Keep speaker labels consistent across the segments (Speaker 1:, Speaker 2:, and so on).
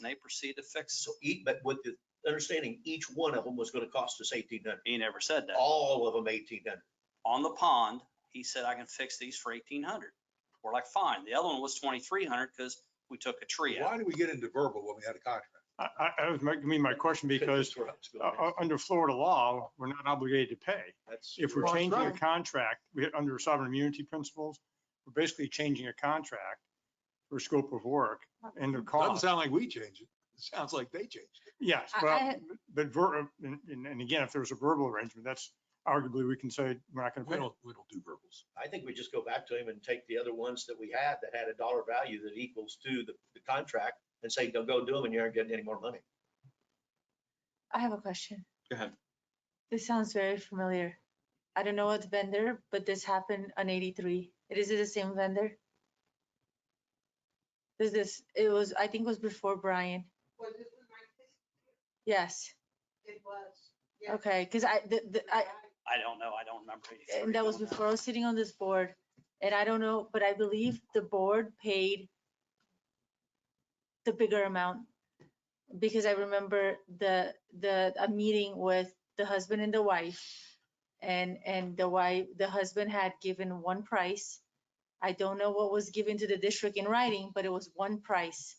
Speaker 1: and they proceed to fix.
Speaker 2: So each, but with the understanding, each one of them was gonna cost us eighteen hundred,
Speaker 1: He never said that.
Speaker 2: all of them eighteen hundred.
Speaker 1: On the pond, he said, I can fix these for eighteen hundred. We're like, fine. The other one was twenty-three hundred because we took a tree out.
Speaker 3: Why do we get into verbal when we had a contract?
Speaker 4: I, I, I was making me my question because uh, uh, under Florida law, we're not obligated to pay. If we're
Speaker 3: Well, that's
Speaker 4: changing a
Speaker 3: right.
Speaker 4: contract, we hit under sovereign immunity principles, we're basically changing a contract for scope of work and the
Speaker 3: Doesn't
Speaker 4: cost.
Speaker 3: sound like we changed it. It sounds like they changed. it.
Speaker 4: Yes,
Speaker 5: I-
Speaker 4: well,
Speaker 5: I-
Speaker 4: but ver, and, and and again, if there was a verbal arrangement, that's arguably, we can say, we're not going
Speaker 3: We
Speaker 4: to pay.
Speaker 3: don't, we don't do verbals.
Speaker 2: I think we just go back to him and take the other ones that we had that had a dollar value that equals to the, the contract and say, don't go do them and you aren't getting any more money.
Speaker 5: I have a question.
Speaker 1: Go ahead.
Speaker 5: This sounds very familiar. I don't know what vendor, but this happened on eighty-three. It is it the same vendor? Is this, it was, I think it was before Brian.
Speaker 6: Was this the nineteen?
Speaker 5: Yes,
Speaker 6: It was. yeah.
Speaker 5: okay, because I, the, the, I,
Speaker 1: I don't know. I don't remember. 83
Speaker 5: and that was
Speaker 1: doing
Speaker 5: before I was sitting on this board. And I don't know, but I believe the board paid the bigger amount. Because I remember the, the, a meeting with the husband and the wife. And, and the wife, the husband had given one price. I don't know what was given to the district in writing, but it was one price.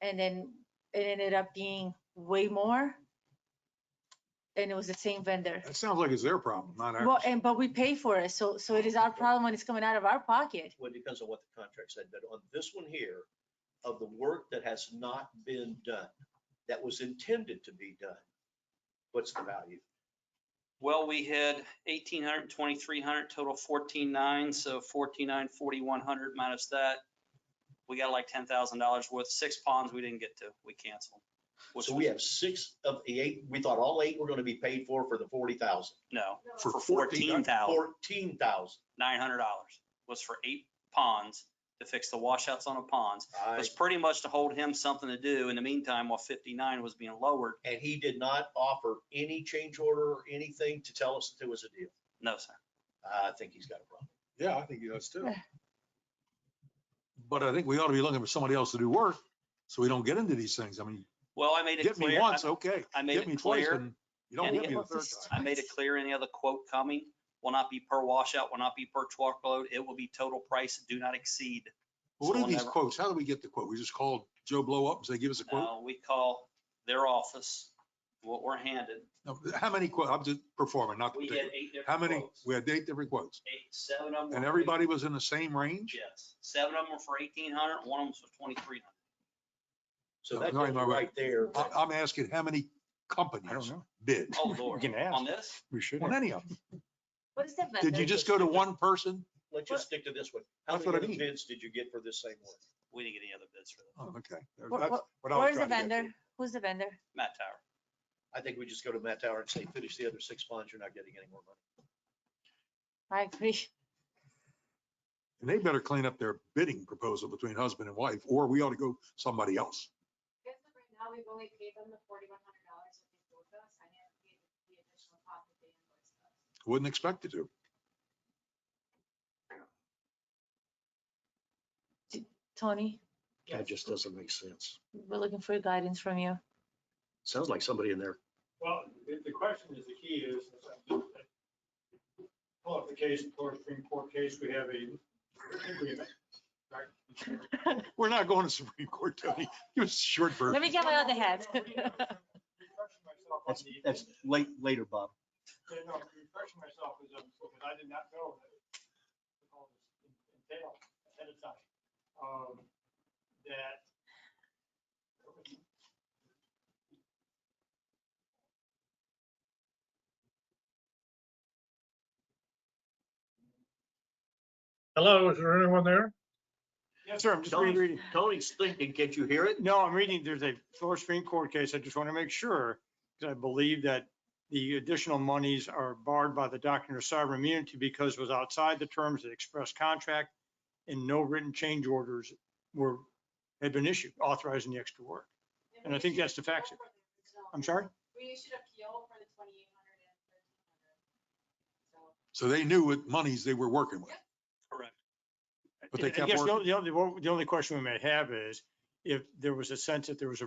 Speaker 5: And then it ended up being way more. And it was the same vendor.
Speaker 3: That sounds like it's their problem, not
Speaker 5: Well,
Speaker 3: ours.
Speaker 5: and, but we pay for it, so, so it is our problem when it's coming out of our pocket.
Speaker 2: Well, it depends on what the contract said, but on this one here, of the work that has not been done, that was intended to be done, what's the value?
Speaker 1: Well, we had 1,800, 2,300, total 14,900, so 14,900, 4,100 minus that. We got like $10,000 worth, six ponds we didn't get to, we canceled. which
Speaker 2: So we
Speaker 1: was-
Speaker 2: have six of the eight, we thought all eight were gonna be paid for, for the forty thousand.
Speaker 1: No,
Speaker 6: No,
Speaker 1: for
Speaker 3: 14,900.
Speaker 1: $14,900
Speaker 2: Fourteen thousand.
Speaker 1: was for eight ponds to fix the washouts on the ponds. It
Speaker 2: I
Speaker 1: was pretty much to hold him something to do in the meantime while 59 was being lowered.
Speaker 2: And he did not offer any change order or anything to tell us that there was a deal.
Speaker 1: No, sir.
Speaker 2: I think he's got a problem.
Speaker 3: Yeah, I think he does too. But I think we ought to be looking for somebody else to do work, so we don't get into these things. I mean,
Speaker 1: Well, I made it
Speaker 3: get me
Speaker 1: clear,
Speaker 3: once,
Speaker 1: I
Speaker 3: okay.
Speaker 1: I made
Speaker 3: Get
Speaker 1: it
Speaker 3: me twice,
Speaker 1: clear.
Speaker 3: and you don't
Speaker 1: and
Speaker 3: get me the
Speaker 5: it-
Speaker 3: third
Speaker 1: I
Speaker 3: time.
Speaker 1: made it clear any other quote coming will not be per washout, will not be per truckload. It will be total price, do not exceed.
Speaker 3: Well, What
Speaker 1: so
Speaker 3: are these
Speaker 1: whenever-
Speaker 3: quotes? How do we get the quote? We just called Joe Blow up and say, give us a quote?
Speaker 1: Uh, we call their office, what we're handed.
Speaker 3: No, How many quotes? I'm just performing, not
Speaker 1: We had
Speaker 3: particular.
Speaker 1: eight different
Speaker 3: How many?
Speaker 1: quotes.
Speaker 3: We had eight different quotes.
Speaker 1: Eight, seven of them.
Speaker 3: And
Speaker 1: were-
Speaker 3: everybody was in the same range?
Speaker 1: Yes, seven of them were for eighteen hundred, one of them was for twenty-three hundred.
Speaker 2: So that
Speaker 3: No,
Speaker 2: tells
Speaker 3: no,
Speaker 2: you
Speaker 3: no. Uh,
Speaker 2: right there.
Speaker 3: I- I'm asking how many
Speaker 4: I don't
Speaker 3: companies
Speaker 4: know.
Speaker 3: bid
Speaker 1: Oh,
Speaker 4: We
Speaker 1: Lord.
Speaker 4: can ask.
Speaker 1: On this,
Speaker 4: We should.
Speaker 3: on any of them.
Speaker 5: What is that vendor?
Speaker 3: Did you just go to one person?
Speaker 2: Let's just stick to this one. How
Speaker 3: That's
Speaker 2: many
Speaker 3: what I
Speaker 2: other
Speaker 3: mean.
Speaker 2: bids did you get for this same one?
Speaker 1: we didn't get any other bids for that.
Speaker 3: Oh, Okay. That's
Speaker 5: Wh-
Speaker 3: what
Speaker 5: wh-
Speaker 3: I was
Speaker 5: Where's the
Speaker 3: trying to get to.
Speaker 5: vendor? Who's the vendor?
Speaker 1: Matt Tower.
Speaker 2: I think we just go to Matt Tower and say, finish the other six ponds, you're not getting any more money.
Speaker 5: I agree.
Speaker 3: And they better clean up their bidding proposal between husband and wife, or we ought to go somebody else.
Speaker 7: Yes, but right now, we've only paid them the forty-one hundred dollars that they owed us. I haven't paid the additional cost that they invoiced us.
Speaker 3: Wouldn't expect you to.
Speaker 5: Tony,
Speaker 8: That just doesn't make sense.
Speaker 5: we're looking for guidance from you.
Speaker 8: Sounds like somebody in there.
Speaker 4: Well, the, the question is, the key is, well, the case, Florida Supreme Court case, we have a agreement.
Speaker 3: We're not going to Supreme Court, Tony. Give us a short
Speaker 5: Let
Speaker 3: version.
Speaker 5: me get my other hat.
Speaker 8: That's, that's late, later, Bob.
Speaker 4: Yeah, no, refreshing myself is, um, because I did not know that it all this entailed ahead of time. Um, That.
Speaker 9: Hello, is there anyone there?
Speaker 4: Yes, sir, I'm just
Speaker 8: Tony-
Speaker 4: reading.
Speaker 8: Tony's thinking, can't you hear it?
Speaker 4: No, I'm reading, there's a Florida Supreme Court case. I just want to make sure, because I believe that the additional monies are barred by the doctrine of sovereign immunity because it was outside the terms of the express contract and no written change orders were, had been issued authorizing the extra work. And I
Speaker 7: we
Speaker 4: think
Speaker 7: issued
Speaker 4: that's the
Speaker 7: appeal
Speaker 4: facts.
Speaker 7: for the original-
Speaker 4: I'm sorry?
Speaker 7: We issued appeal for the twenty-eight hundred and thirteen hundred. So
Speaker 3: So they knew what monies they were working with.
Speaker 1: Correct.
Speaker 3: But they
Speaker 4: I
Speaker 3: kept
Speaker 4: guess the
Speaker 3: working.
Speaker 4: only- The only, the only question we may have is if there was a sense that there was a